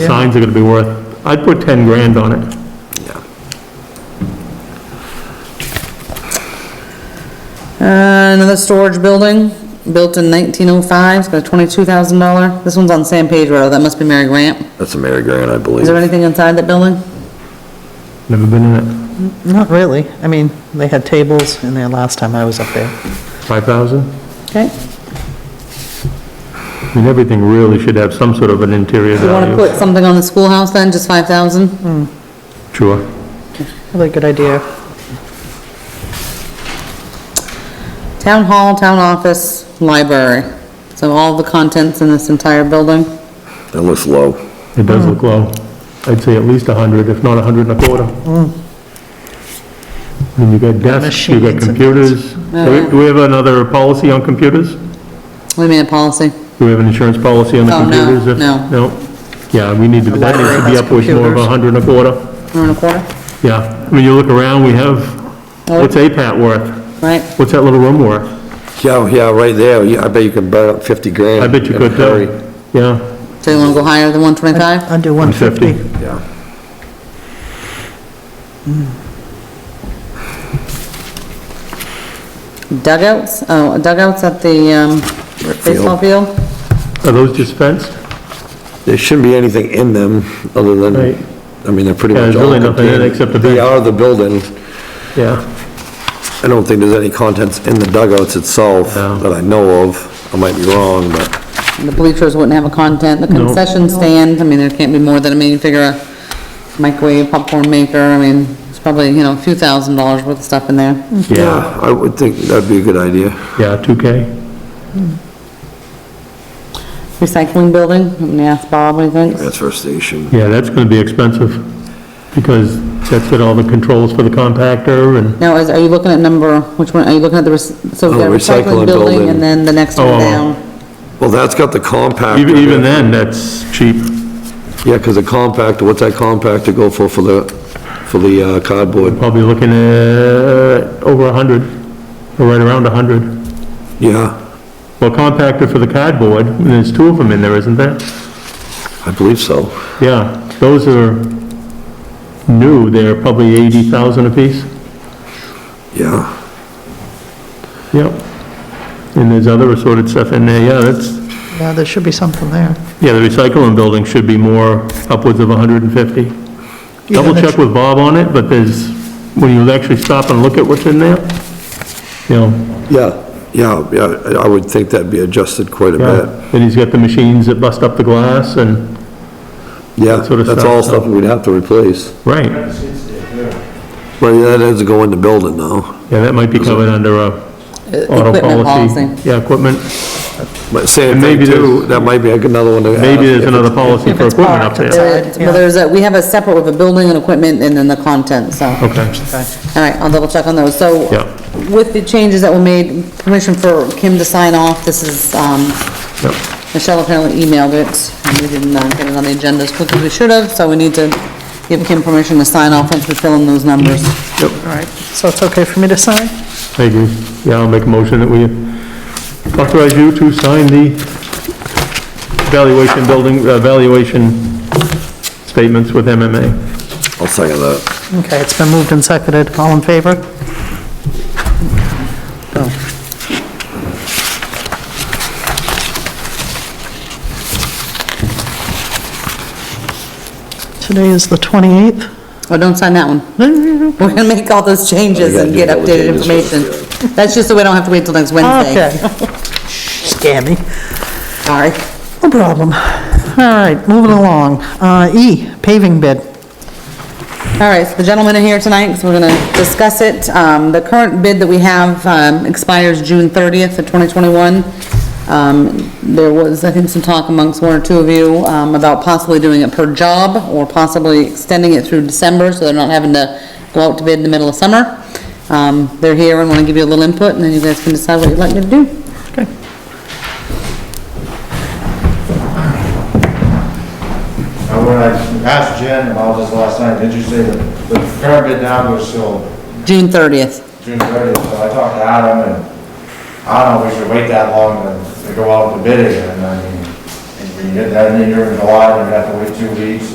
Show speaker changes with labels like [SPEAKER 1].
[SPEAKER 1] Signs are gonna be worth, I'd put 10 grand on it.
[SPEAKER 2] Uh, Another storage building, built in 1905, it's got a $22,000. This one's on San Pedro, that must be Mary Grant.
[SPEAKER 3] That's a Mary Grant, I believe.
[SPEAKER 2] Is there anything inside that building?
[SPEAKER 1] Never been in it.
[SPEAKER 4] Not really. I mean, they had tables in there last time I was up there.
[SPEAKER 1] 5,000?
[SPEAKER 2] Okay.
[SPEAKER 1] I mean, everything really should have some sort of an interior
[SPEAKER 2] You want to
[SPEAKER 1] value.
[SPEAKER 2] put something on the schoolhouse then, just 5,000?
[SPEAKER 1] Sure.
[SPEAKER 4] Really good idea.
[SPEAKER 2] Town hall, town office, library. So all the contents in this entire building.
[SPEAKER 3] That looks low.
[SPEAKER 1] It does look low. I'd say at least 100, if not 100 and a quarter. I mean, you got desks, you got
[SPEAKER 4] Machines and-
[SPEAKER 1] computers. Do we- do we have another policy on computers?
[SPEAKER 2] What do you mean, a policy?
[SPEAKER 1] Do we have an insurance policy on the
[SPEAKER 2] Oh, no,
[SPEAKER 1] computers? If-
[SPEAKER 2] no.
[SPEAKER 1] No? Yeah, we need to, that needs to
[SPEAKER 4] library
[SPEAKER 1] be
[SPEAKER 4] has
[SPEAKER 1] upwards more of
[SPEAKER 4] computers.
[SPEAKER 1] 100 and a quarter.
[SPEAKER 2] One and a quarter,
[SPEAKER 1] Yeah, I mean, you look around, we have, what's APAT worth?
[SPEAKER 2] right?
[SPEAKER 1] What's that little room worth?
[SPEAKER 3] Yeah, yeah, right there, Yeah, I bet you could burn up 50 grand.
[SPEAKER 1] I bet you
[SPEAKER 3] in a
[SPEAKER 1] could tell.
[SPEAKER 3] hurry.
[SPEAKER 1] Yeah,
[SPEAKER 2] So you want to go higher than 125?
[SPEAKER 4] Under 150.
[SPEAKER 1] 150.
[SPEAKER 3] Yeah,
[SPEAKER 2] Dugouts, oh, dugouts at the um,
[SPEAKER 3] Right field.
[SPEAKER 2] baseball field?
[SPEAKER 1] Are those just fenced?
[SPEAKER 3] there shouldn't be anything in them other
[SPEAKER 1] Right.
[SPEAKER 3] than, I mean, they're pretty
[SPEAKER 1] Yeah,
[SPEAKER 3] much
[SPEAKER 1] there's
[SPEAKER 3] all
[SPEAKER 1] really nothing in it
[SPEAKER 3] contained.
[SPEAKER 1] except the
[SPEAKER 3] They
[SPEAKER 1] bench.
[SPEAKER 3] are the building.
[SPEAKER 1] Yeah,
[SPEAKER 3] I don't think there's any contents in the dugouts itself
[SPEAKER 1] No.
[SPEAKER 3] that I know of. I might be wrong, but
[SPEAKER 2] The bleachers wouldn't have a content, the concession stand, I mean, there can't be more than, I mean, you figure a microwave, popcorn maker, I mean, it's probably, you know, a few thousand dollars worth of stuff in there.
[SPEAKER 1] yeah,
[SPEAKER 3] yeah, I would think that'd be a good idea.
[SPEAKER 1] yeah, 2K.
[SPEAKER 2] Recycling building, I'm gonna ask Bob what he thinks.
[SPEAKER 3] Transfer station.
[SPEAKER 1] Yeah, that's gonna be expensive, because that's got all the controls for the compactor and,
[SPEAKER 2] Now, is, are you looking at number, which one, are you looking at the, rec- so we've got
[SPEAKER 3] Oh,
[SPEAKER 2] recycling
[SPEAKER 3] recycling
[SPEAKER 2] building
[SPEAKER 3] building.
[SPEAKER 2] and then the next one
[SPEAKER 1] Oh.
[SPEAKER 2] down?
[SPEAKER 3] Well, that's got the compactor.
[SPEAKER 1] even, even then, that's cheap.
[SPEAKER 3] Yeah, because the compactor, what's that compactor go for, for the, for the uh, cardboard?
[SPEAKER 1] Probably looking at over 100, or right around 100.
[SPEAKER 3] Yeah,
[SPEAKER 1] Well, compactor for the cardboard, and there's two of them in there, isn't there?
[SPEAKER 3] I believe so.
[SPEAKER 1] Yeah, those are new, they're probably 80,000 apiece.
[SPEAKER 3] Yeah,
[SPEAKER 1] Yep. And there's other assorted stuff in there, yeah, that's,
[SPEAKER 4] Yeah, there should be something there.
[SPEAKER 1] yeah, the recycling building should be more upwards of 150. Double check with Bob on it, but there's, when you actually stop and look at what's in there, you know,
[SPEAKER 3] yeah, yeah, yeah, I I would think that'd be adjusted quite a bit.
[SPEAKER 1] yeah. Then he's got the machines that bust up the glass and,
[SPEAKER 3] Yeah,
[SPEAKER 1] sort of
[SPEAKER 3] that's
[SPEAKER 1] stuff,
[SPEAKER 3] all
[SPEAKER 1] so.
[SPEAKER 3] stuff we'd have to replace.
[SPEAKER 1] right,
[SPEAKER 3] Well, yeah, that doesn't go in the building now.
[SPEAKER 1] yeah, that might be covered under
[SPEAKER 4] Uh,
[SPEAKER 1] a auto
[SPEAKER 2] Equipment
[SPEAKER 1] policy.
[SPEAKER 2] policy.
[SPEAKER 1] Yeah, equipment,
[SPEAKER 3] But same
[SPEAKER 1] And
[SPEAKER 3] thing
[SPEAKER 1] maybe
[SPEAKER 3] too,
[SPEAKER 1] there's-
[SPEAKER 3] that might be another one to add.
[SPEAKER 1] maybe there's
[SPEAKER 3] If
[SPEAKER 1] another policy
[SPEAKER 4] if
[SPEAKER 1] for
[SPEAKER 4] it's
[SPEAKER 1] equipment up
[SPEAKER 4] parked,
[SPEAKER 1] there.
[SPEAKER 4] it's-
[SPEAKER 2] There is- Well, there's a, we have a separate with a building and equipment and then the content, so.
[SPEAKER 1] Okay,
[SPEAKER 2] All right, I'll double check on those. So
[SPEAKER 1] Yeah.
[SPEAKER 2] with the changes that were made, permission for Kim to sign off, this is, um,
[SPEAKER 1] yep,
[SPEAKER 2] Michelle apparently emailed it, and we didn't uh, get it on the agenda as quick as we should have, so we need to give Kim permission to sign off once we fill in those numbers.
[SPEAKER 4] All right, so it's okay for me to sign?
[SPEAKER 1] I agree. Yeah, I'll make a motion that we authorize you to sign the valuation building, uh, valuation statements with MMA.
[SPEAKER 3] I'll second that.
[SPEAKER 4] Okay, it's been moved and seconded. All in favor? Oh, Today is the 28th?
[SPEAKER 2] Oh, don't sign that one. We're gonna make all those changes and get updated information. That's just so we don't have to wait till next Wednesday.
[SPEAKER 4] Okay. Scammy.
[SPEAKER 2] Sorry.
[SPEAKER 4] No problem. All right, moving along. Uh, E, paving bid.
[SPEAKER 2] All right, so the gentlemen are here tonight, so we're going to discuss it. Um, The current bid that we have um, expires June 30th of 2021. Um, There was, I think, some talk amongst one or two of you um, about possibly doing it per job or possibly extending it through December so they're not having to go out to bid in the middle of summer. Um, They're here and want to give you a little input, and then you guys can decide what you'd like to do.
[SPEAKER 5] And when I asked Jen about this last night, did you say that the current bid now goes till
[SPEAKER 2] June 30th.
[SPEAKER 5] June thirtieth? So I talked to Adam and I don't know if we should wait that long to, to go out to bid again. I mean, and you get that in here in July, and you have to wait two weeks,